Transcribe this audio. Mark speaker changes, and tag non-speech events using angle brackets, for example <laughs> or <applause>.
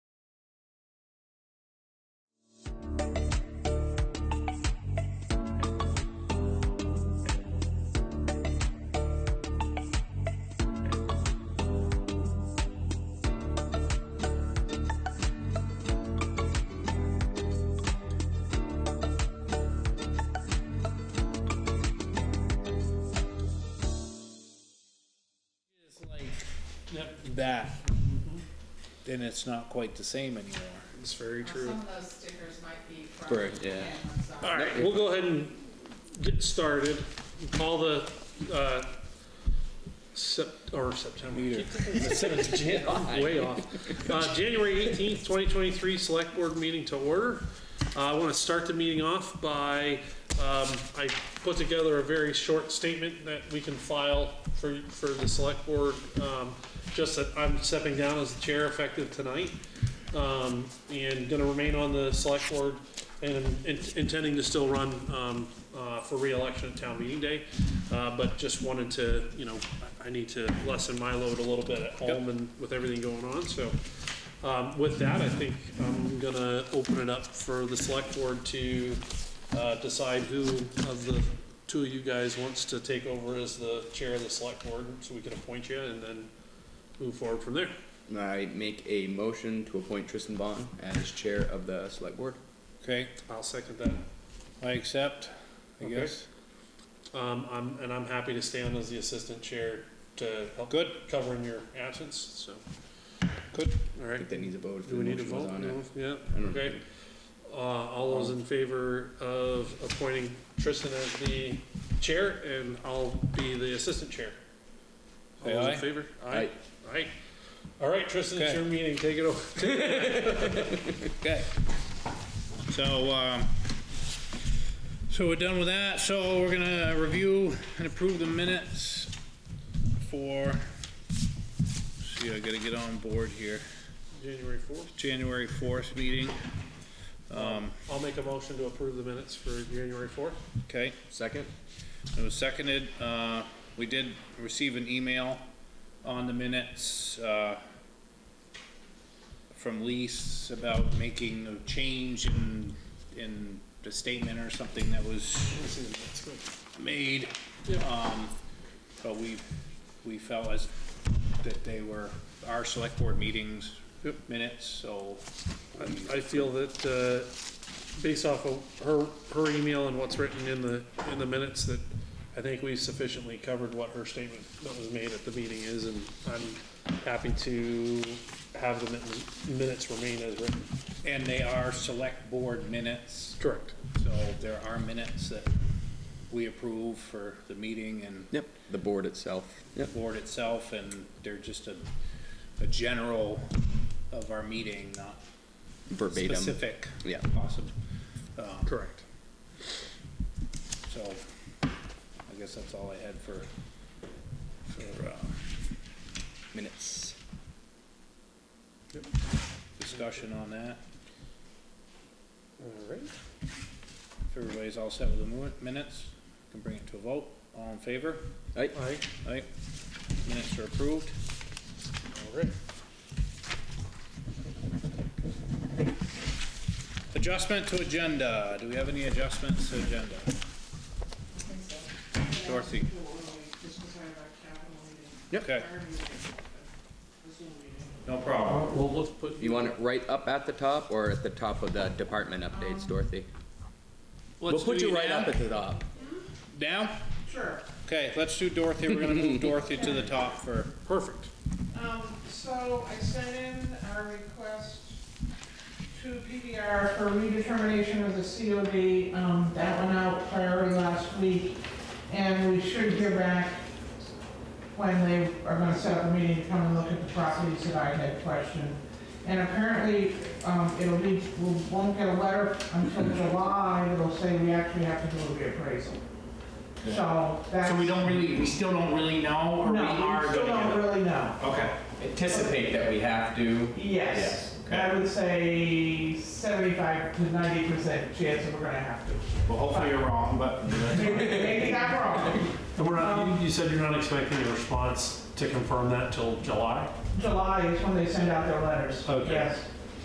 Speaker 1: that, then it's not quite the same anymore.
Speaker 2: It's very
Speaker 3: Well,
Speaker 2: true.
Speaker 3: Some of those stickers might be from.
Speaker 4: Correct, yeah.
Speaker 3: Cameron, so-
Speaker 2: All right, we'll go ahead and get started. Call the, uh, Sep, or September.
Speaker 1: Meter.
Speaker 2: Jan- oh, Way off. Uh, January 18th, 2023 Select Board Meeting to order. Uh, I want to start the meeting off by, um, I put together a very short statement that we can file for, for the Select Board, um, just that I'm stepping down as the chair effective tonight, um, and going to remain on the Select Board and in- intending to still run um, uh, for reelection at town meeting day, Uh, but just wanted to, you know, I I need to lessen my load a little bit at home and with everything going on, so. um, With that, I think I'm gonna open it up for the select board to uh, decide who of the two of you guys wants to take over as the chair of the select board, so we can appoint you and then move forward from there.
Speaker 4: I make a motion to appoint Tristan Bond as chair of the select board.
Speaker 1: Okay,
Speaker 2: I'll second that.
Speaker 1: I accept, I
Speaker 2: Okay.
Speaker 1: guess.
Speaker 2: Um, I'm, and I'm happy to stand as the assistant chair to help.
Speaker 1: Good.
Speaker 2: Cover in your absence, so.
Speaker 1: Good.
Speaker 2: All
Speaker 4: I
Speaker 2: right.
Speaker 4: think that needs a vote. if
Speaker 2: Do
Speaker 4: the
Speaker 2: we need to
Speaker 4: motion was
Speaker 2: vote?
Speaker 4: on
Speaker 2: No?
Speaker 4: it.
Speaker 2: Yeah,
Speaker 4: I don't
Speaker 2: okay.
Speaker 4: think-
Speaker 2: Uh, all those in favor of appointing Tristan as the chair and I'll be the assistant chair? All
Speaker 1: Say
Speaker 2: those
Speaker 1: aye.
Speaker 2: in favor? Aye. Aye. All right, Tristan, it's
Speaker 1: Okay.
Speaker 2: your meeting. Take it over.
Speaker 1: Okay. So, um, so we're done with that, so we're gonna review and approve the minutes for, see, I gotta get on board here,
Speaker 2: January fourth.
Speaker 1: January fourth meeting,
Speaker 2: I'll make a motion to approve the minutes for January fourth.
Speaker 1: okay?
Speaker 4: Second?
Speaker 1: It was seconded, uh, we did receive an email on the minutes, uh, from Lease about making a change in, in the statement or something that was made.
Speaker 2: Yep.
Speaker 1: Um, but we, we felt as, that they were our select board meetings
Speaker 2: Yep.
Speaker 1: minutes, so.
Speaker 2: I feel that, uh, based off of her, her email and what's written in the, in the minutes, that I think we sufficiently covered what her statement that was made at the meeting is, and I'm happy to have the min- minutes remain as written.
Speaker 1: And they are select board minutes,
Speaker 2: Correct.
Speaker 1: so there are minutes that we approve for the meeting and
Speaker 4: Yep, the board itself. Yep.
Speaker 1: board itself, and they're just a, a general of our meeting, not
Speaker 4: Verbatim.
Speaker 1: specific.
Speaker 4: Yeah.
Speaker 1: Awesome. Um,
Speaker 2: Correct.
Speaker 1: So, I guess that's all I had for, for, uh,
Speaker 4: Minutes.
Speaker 1: discussion on that.
Speaker 2: All right.
Speaker 1: If everybody's all set with the mo- minutes, can bring it to a vote. All in favor?
Speaker 4: Aye.
Speaker 2: Aye.
Speaker 1: Aye. Minutes are approved.
Speaker 2: All right.
Speaker 1: Adjustment to agenda. Do we have any adjustments to agenda?
Speaker 3: I think so.
Speaker 1: Dorothy. Yep. Okay, no problem.
Speaker 2: Well, let's put.
Speaker 4: You want it right up at the top or at the top of the department updates, Dorothy? We'll
Speaker 1: Let's
Speaker 4: put
Speaker 1: do
Speaker 4: you right
Speaker 1: now.
Speaker 4: up at the top.
Speaker 1: Now?
Speaker 3: Sure.
Speaker 1: Okay, let's do Dorothy. We're gonna move Dorothy to the top for,
Speaker 2: Perfect.
Speaker 3: Um, so I sent in our request to PDR for redetermination of the COD. Um, that went out priority last week, and we should hear back when they are gonna set up a meeting to come and look at the properties that I had questioned. And apparently, um, it'll be, we won't get a letter until July, it'll say we actually have to do a reappraisal. So that's.
Speaker 5: So we don't really, we still don't really know, or we
Speaker 3: No,
Speaker 5: are
Speaker 3: we still
Speaker 5: gonna
Speaker 3: don't
Speaker 5: get it?
Speaker 3: really know.
Speaker 5: Okay,
Speaker 4: Anticipate that we have to.
Speaker 3: Yes,
Speaker 5: Yes, okay.
Speaker 3: I would say seventy-five to ninety percent chance that we're gonna have to.
Speaker 5: well, hopefully you're wrong, but
Speaker 3: <laughs> Maybe I'm wrong,
Speaker 6: And we're not, you- you said you're not expecting a response to confirm that till July?
Speaker 3: July is when they send out their letters,
Speaker 6: Okay.
Speaker 3: yes.